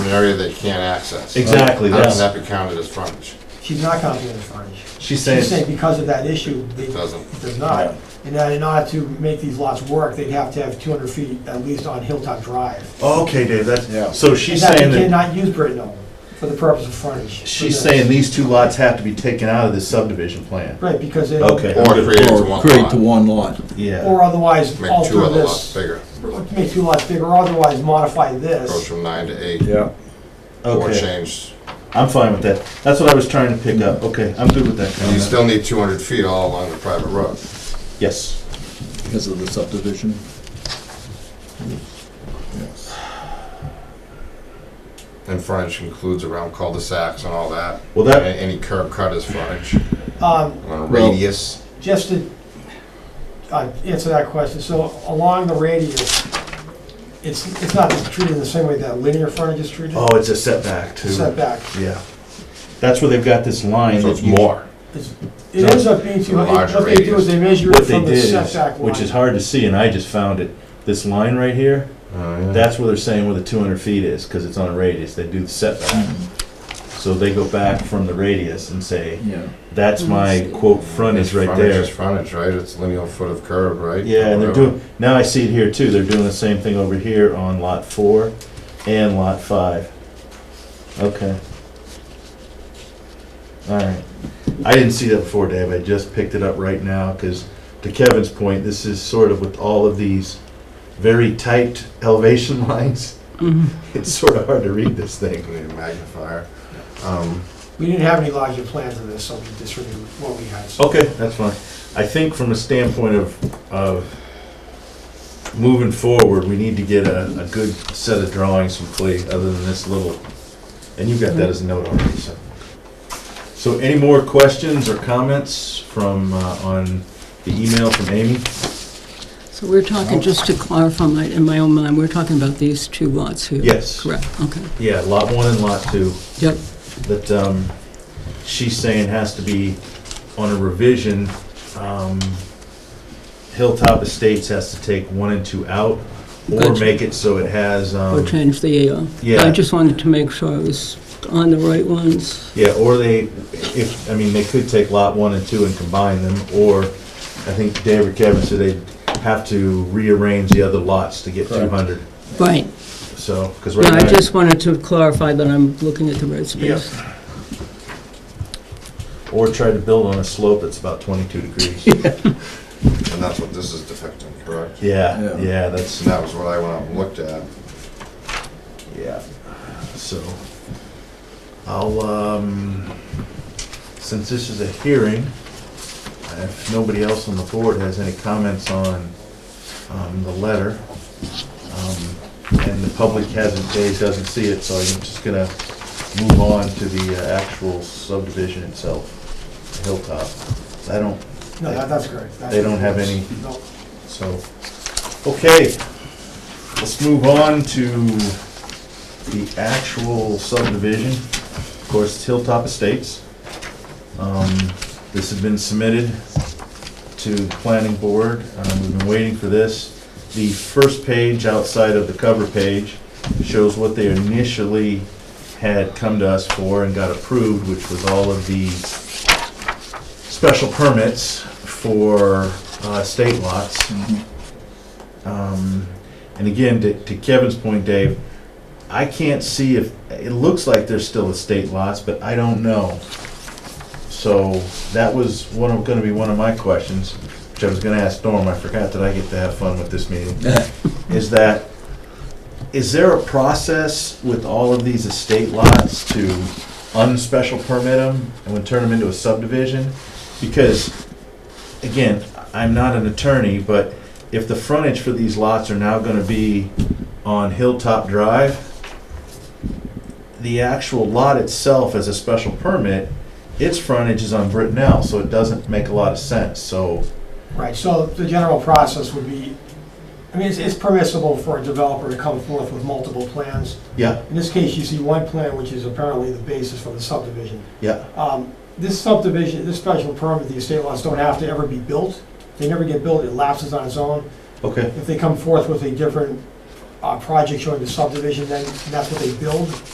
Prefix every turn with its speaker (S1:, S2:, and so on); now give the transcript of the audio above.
S1: area they can't access.
S2: Exactly,
S1: How
S2: yes.
S1: does that be counted as frontage?
S3: She's not counting it as frontage.
S2: She's
S3: She's saying
S2: saying,
S3: because of that issue, they,
S1: It
S3: it
S1: doesn't.
S3: does not.
S2: Yeah.
S3: And that in order to make these lots work, they'd have to have two hundred feet at least on Hilltop Drive.
S2: Oh, okay, Dave,
S4: Yeah.
S2: that's, so she's
S3: And
S2: saying
S3: They
S2: that,
S3: cannot use Brittenell for the purpose of frontage.
S2: she's saying these two lots have to be taken out of this subdivision plan.
S3: Right, because they,
S2: Okay.
S1: Or create it to
S4: Or
S1: one
S4: create
S1: lot,
S4: to one lot.
S3: or
S2: Yeah.
S3: otherwise
S1: make two
S3: alter
S1: other lots
S3: this.
S1: bigger,
S3: Make two lots bigger, or otherwise modify
S1: goes
S3: this.
S1: from nine to eight,
S4: Yeah.
S1: or
S2: Okay,
S1: change.
S2: I'm fine with that. That's what I was trying to pick up. Okay, I'm good with that
S1: And you
S2: comment.
S1: still need two hundred feet all along the private road.
S2: Yes.
S4: Because of the subdivision. Yes.
S1: And frontage includes around cul-de-sacs and all that.
S2: Well, that-
S1: And Any curb cut is frontage,
S3: Um,
S1: on a radius.
S3: Just to uh, answer that question, so along the radius, it's, it's not treated the same way that linear frontage is treated?
S2: Oh, it's a setback too.
S3: Setback.
S2: Yeah. That's where they've got this line.
S1: So
S2: that
S1: it's
S2: you-
S1: more.
S3: It's- It ends up being too,
S1: Larger
S3: what they do is they measure it
S2: What they
S3: from the
S2: did is,
S3: setback line.
S2: which is hard to see, and I just found it, this line right here,
S1: Oh,
S2: that's where they're saying where the two hundred feet is, because it's on a radius, they do the setback. So they go back from the radius and say,
S4: Yeah.
S2: that's my quote frontage right
S1: Frontage is
S2: there.
S1: frontage, right? It's lineal foot of curb, right?
S2: Yeah, and they're
S1: Whatever.
S2: doing, now I see it here too, they're doing the same thing over here on lot four and lot five. Okay. Alright, I didn't see that before, Dave, I just picked it up right now, because to Kevin's point, this is sort of with all of these very tight elevation lines, it's sort of hard to read this thing.
S1: We Need a magnifier. Um,
S3: We didn't have any larger plans of this, so we disregarded what we had. So
S2: Okay, that's fine. I think from a standpoint of, of moving forward, we need to get a, a good set of drawings from Clay, other than this little, and you've got that as a note already, so. So any more questions or comments from, uh, on the email from Amy?
S5: So we're talking, just to clarify my, in my own mind, we're talking about these two lots here?
S2: Yes.
S5: Correct, okay.
S2: Yeah, lot one and lot two,
S5: Yep,
S2: that, um, she's saying has to be on a revision. Um, Hilltop Estates has to take one and two out, or
S5: Gotcha.
S2: make it so it has, um.
S5: or change the AR.
S2: yeah.
S5: I just wanted to make sure I was on the right ones.
S2: Yeah, or they, if, I mean, they could take lot one and two and combine them, or I think Dave or Kevin said they'd have to rearrange the other lots to get two
S4: Correct.
S2: hundred,
S5: Right,
S2: so, because
S5: yeah,
S2: right
S5: I
S2: now.
S5: just wanted to clarify that I'm looking at the right space.
S2: Or try to build on a slope that's about twenty-two degrees.
S1: And that's what this is depicting, correct?
S2: Yeah,
S4: Yeah.
S2: yeah, that's,
S1: And that was what I went out and looked at.
S2: yeah, so. I'll, um, since this is a hearing, if nobody else on the board has any comments on, um, the letter, um, and the public hasn't, Dave doesn't see it, so I'm just gonna move on to the uh, actual subdivision itself, Hilltop. I don't,
S3: No, that- that's correct. That's-
S2: They don't have any-
S3: No.
S2: so, okay, let's move on to the actual subdivision. Of course, it's Hilltop Estates. Um, This has been submitted to the planning board. Um, We've been waiting for this. The first page outside of the cover page shows what they initially had come to us for and got approved, which was all of the special permits for uh, state lots.
S4: Mm-hmm.
S2: Um, And again, to to Kevin's point, Dave, I can't see if, it looks like there's still estate lots, but I don't know. So that was one of, gonna be one of my questions, which I was gonna ask Norm, I forgot that I get to have fun with this meeting, is that, is there a process with all of these estate lots to unspecial permit them and would turn them into a subdivision? Because, again, I'm not an attorney, but if the frontage for these lots are now gonna be on Hilltop Drive, the actual lot itself as a special permit, its frontage is on Brittenell, so it doesn't make a lot of sense, so,
S3: Right, so the general process would be, I mean, it's- it's permissible for a developer to come forth with multiple plans.
S2: yeah,
S3: In this case, you see one plan, which is apparently the basis for the subdivision.
S2: yeah,
S3: Um, This subdivision, this special permit, the estate lots don't have to ever be built. They never get built, it lapses on its own.
S2: okay.
S3: If they come forth with a different uh, project showing the subdivision, then that's what they build.